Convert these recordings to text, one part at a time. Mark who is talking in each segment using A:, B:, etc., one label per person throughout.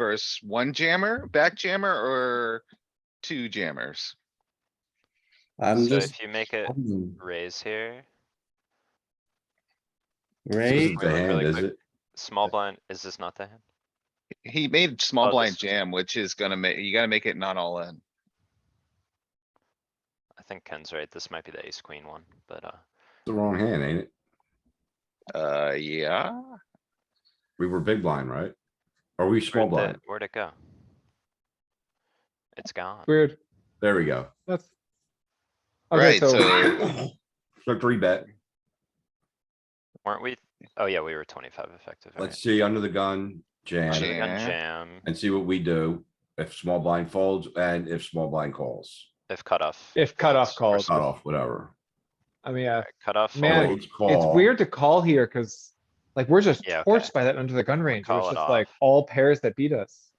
A: versus one jammer, back jammer, or two jammers?
B: I'm
C: So
B: just.
C: if you make a
B: folding,
C: raise here,
D: This
B: Right?
D: is
C: Wait,
D: the
C: really
D: hand, is
C: quick.
D: it?
C: small blind, is this not the hand?
A: He made
C: Oh,
A: small
C: this
A: blind
C: is-
A: jam, which is gonna make, you gotta make it not all in.
C: I think Ken's right. This might be the ace queen one, but uh,
D: The wrong hand, ain't it?
A: Uh, yeah,
D: We were big blind, right? Are we small
C: where'd the-
D: blind?
C: where'd it go? It's gone.
E: Weird.
D: There we go.
E: That's.
A: right,
E: Okay, so
A: so
D: So three bet.
C: Weren't we? Oh yeah, we were twenty-five effective. alright.
D: Let's see, under the gun,
C: Under the
D: jam,
A: Jam.
C: gun
A: Yeah.
C: jam,
D: and see what we do if small blind folds and if small blind calls.
C: if cutoff.
E: if cutoff
C: or
E: calls,
D: Cut
C: something.
D: off, whatever.
E: I mean, uh,
C: Cutoff.
E: Man,
C: fold.
D: Folds,
E: it's
D: call.
E: weird to call here cuz like we're just
C: Oh. Yeah, okay.
E: torched by that under the gun range. It
C: call
E: was
C: it
E: just like
C: off.
E: all pairs that beat us.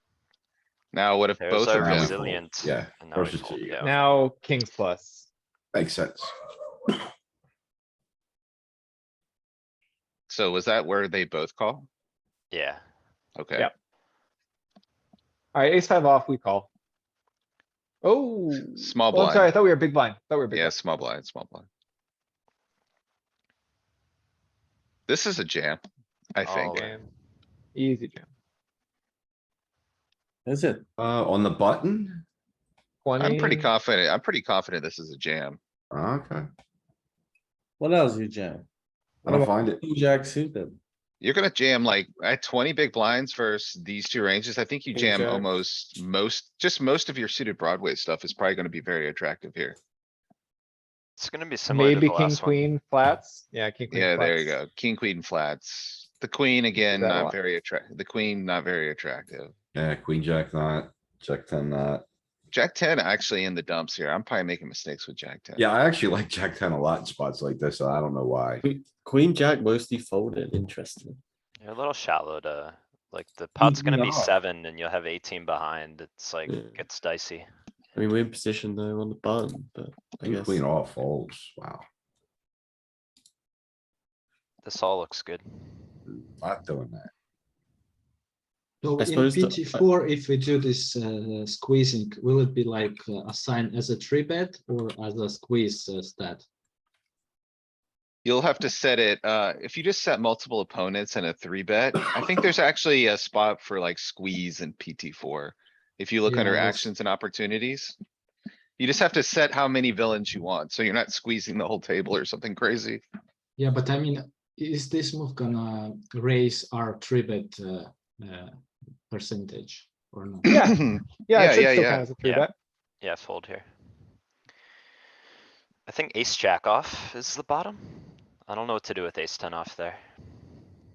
A: now what if
C: There's
A: both
C: our
A: of
D: Now we
A: them?
D: fold.
C: resilient,
D: Yeah,
C: and now we
D: versus
C: fold,
D: the-
C: yeah.
E: Now kings plus.
D: makes sense.
A: So was that where they both call?
C: Yeah,
A: Okay,
E: Yep. Alright, ace five off, we call. Oh.
A: Small
E: well, I'm Sorry, I
A: blind.
E: thought we were big blind. Thought we were big.
A: yeah,
E: blind.
A: small blind, small blind. This is a jam, I
C: all
A: think.
C: in.
E: Easy jam.
B: Is it?
D: Uh, on the button?
A: I'm pretty
E: 20.
A: confident, I'm pretty confident this is a jam.
D: Okay,
B: What else you jam?
D: I don't find it.
B: Two jack suited.
A: You're gonna jam like at twenty big blinds versus these two ranges. I think you
B: King
A: jam
B: jack.
A: almost most, just most of your suited Broadway stuff is probably gonna be very attractive here.
C: It's gonna be similar to the
E: Maybe king,
C: last one.
E: queen, flats. Yeah, king, queen.
A: Yeah, there you
E: flats.
A: go. King, queen, flats. The queen again,
E: that a
A: not
E: lot.
A: very attract, the queen, not very attractive.
D: Yeah, queen, jack, not, jack ten, not.
A: Jack ten actually in the dumps here. I'm probably making mistakes with Jack ten.
D: Yeah, I actually like jack ten a lot in spots like this. and I don't know why.
B: Queen jack mostly folded, interesting.
C: You're a little shallow to, like, the pot's gonna be seven and you'll have eighteen behind. It's like,
B: Yeah.
C: gets dicey.
B: I mean, we're in position though on the button, but I
D: King,
B: guess.
D: Queen off folds, wow,
C: This all looks good.
D: not doing that.
F: So
B: I
F: in
B: suppose the- uh, I-
F: PT four, if we do this uh, squeezing, will it be like uh, assigned as a three bet or as a squeeze uh, stat?
A: You'll have to set it, uh, if you just set multiple opponents and a three bet, I think there's actually a spot for like squeeze and PT four. If you look
F: Yeah,
A: under
F: that's-
A: actions and opportunities. You just have to set how many villains you want, so you're not squeezing the whole table or something crazy.
F: Yeah, but I mean, is this move gonna raise our three bet uh, uh, percentage or not?
E: Yeah. Yeah,
A: Yeah,
E: it should
A: yeah,
E: still
A: yeah.
E: count as a three
C: Yeah.
E: bet.
C: Yeah, fold here. I think ace jack off is the bottom. I don't know what to do with ace ten off there.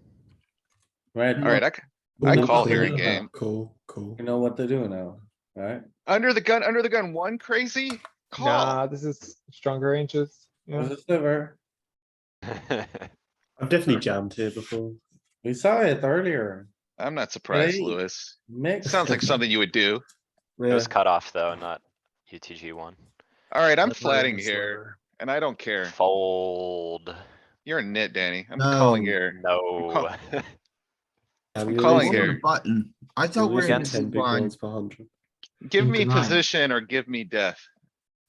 B: Right.
A: Alright, I, c-
B: we know
A: call
B: what
A: here
B: to do now.
A: again.
B: Cool, cool. You know what to do now, right?
A: under the gun, under the gun, one crazy call.
E: Nah, this is stronger ranges. Yeah.
B: There's a sliver.
G: I've definitely jammed here before.
B: We saw it earlier.
A: I'm not surprised,
B: Right.
A: Louis.
B: Mix.
A: Sounds like something you would do.
C: It
G: Yeah.
C: was cut off though, not UTG one.
A: Alright, I'm
G: That's why I
A: flatting
G: was
A: here
G: like,
A: and I don't care.
C: Fold.
A: You're a nit, Danny. I'm calling
G: No.
A: here.
C: No.
B: I'm
A: calling
G: "Hold on
A: here.
G: the Button. I thought we
C: lose
G: we're in
C: against
G: two
B: Ten big
G: blind.
B: ones per hundred.
A: Give me
F: Into nine.
A: position or give me death.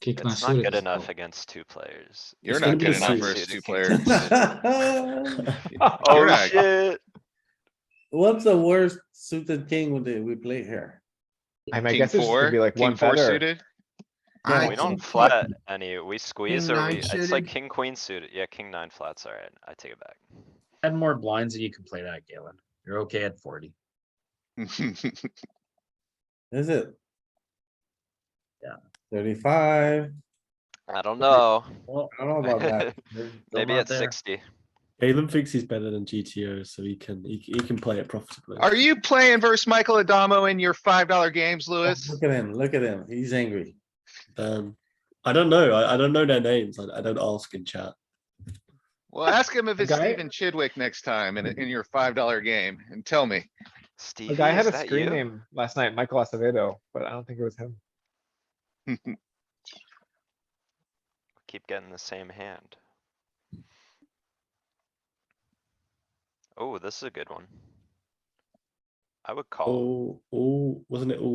F: Kick
C: It's not
F: Nasuri
C: good
F: as
C: enough
F: well.
C: against two players.
A: You're
B: It's
A: not
B: gonna be
A: good
B: a
A: enough
B: six.
A: versus two
C: It's
A: players. You're
C: Oh
A: not-
C: shit.
B: What's the worst suited king would we play here?
E: I mean, I
A: King
E: guess it's just
A: four,
E: gonna be like
A: king
E: one
A: four
E: better.
A: suited.
G: I
C: We don't
G: think-
C: flat any, we squeeze or
G: nine
C: we, it's like
G: suited.
C: king queen suited, yeah, king nine flats, alright, I take it back.
H: Ten more blinds and you can play that, Galen. You're okay at forty.
B: Is it?
H: Yeah.
B: Thirty-five,
C: I don't know,
H: Well,
B: I don't know about that. They're- they're
C: maybe
H: not
C: at
H: there.
C: sixty.
G: Galen thinks he's better than GTO, so he can he, he can play it profitably.
A: Are you playing versus Michael Adamo in your five dollar games, Louis?
B: Look at him, look at him, he's angry.
G: Um, I don't know. I, I don't know their names. I, I don't ask in chat.
A: Well, ask him if it's
E: guy-
A: Steven Chidwick next time in, in your five dollar game and tell me.
C: Stevie,
E: The guy had
C: is
E: a
C: that
E: screen
C: you?
E: name last night, Michael Acevedo, but I don't think it was him.
C: Keep getting the same hand. Oh, this is a good one. I would call.
G: Oh, oh, wasn't it all